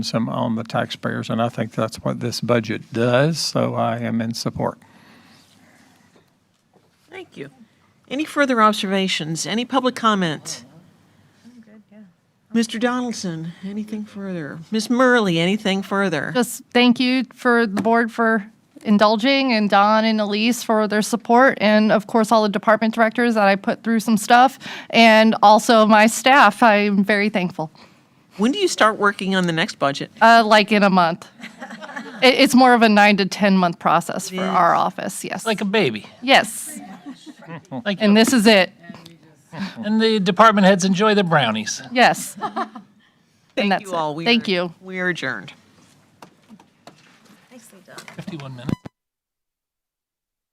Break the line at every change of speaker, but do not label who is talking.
some on the taxpayers, and I think that's what this budget does, so I am in support.
Thank you. Any further observations? Any public comment? Mr. Donaldson, anything further? Ms. Murley, anything further?
Just thank you for the board for indulging and Don and Elise for their support and of course all the department directors that I put through some stuff and also my staff. I'm very thankful.
When do you start working on the next budget?
Uh, like in a month. It, it's more of a nine to 10 month process for our office. Yes.
like a baby.
yes.
Like
And this is it.
and the department heads enjoy the brownies.
Yes.
Thank
that's
you
it.
all. We
Thank
are-
you.
We are adjourned.
Fifty-one minutes.